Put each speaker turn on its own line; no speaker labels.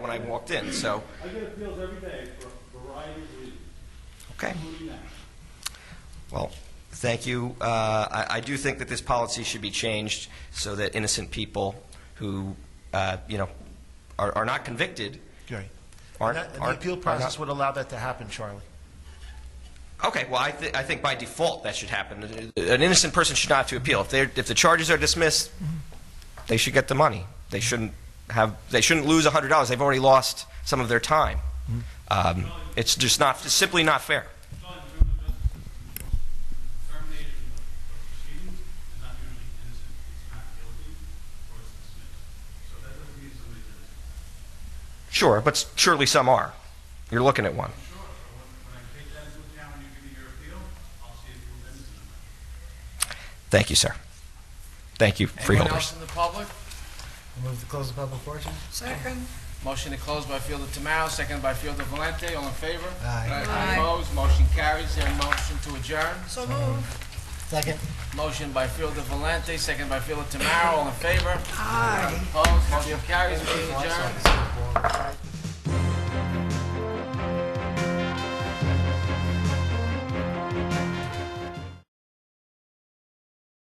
when I walked in, so,
I get appeals every day for a variety of reasons,
okay.
including that.
Well, thank you. Uh, I I do think that this policy should be changed so that innocent people who, uh, you know, are are not convicted
Gary.
aren't...
And that- and the
aren't-
appeal
are not-
process would allow that to happen, Charlie.
Okay, well, I, th- I think by default that should happen. An innocent person should not have to appeal. If, they're, if the charges are dismissed, they should get the money. They shouldn't have. They shouldn't lose hundred dollars. They've already lost some of their time. Um, it's just not. It's simply not fair.
John, you know, just termination of of proceedings is not usually innocent, it's not guilty, or it's dismissed. So that doesn't mean somebody's innocent.
Sure, but s- surely some are. You're looking at one.
Sure, so when when I take that into account when you give me your appeal, I'll see if you're innocent or not.
Thank you, sir. Thank you,
Anyone
freeholders.
else in the public?
Move to close the public portion?
Second.
Motion to close by Fielder Tamaro, seconded by Fielder Valente. All in favor?
Aye.
Aye.
Opposed? Motion carries. There a motion to adjourn?
So move.
Second.
Motion by Fielder Valente, seconded by Fielder Tamaro. All in favor?
Aye.
Opposed? Motion carries. Meeting adjourned.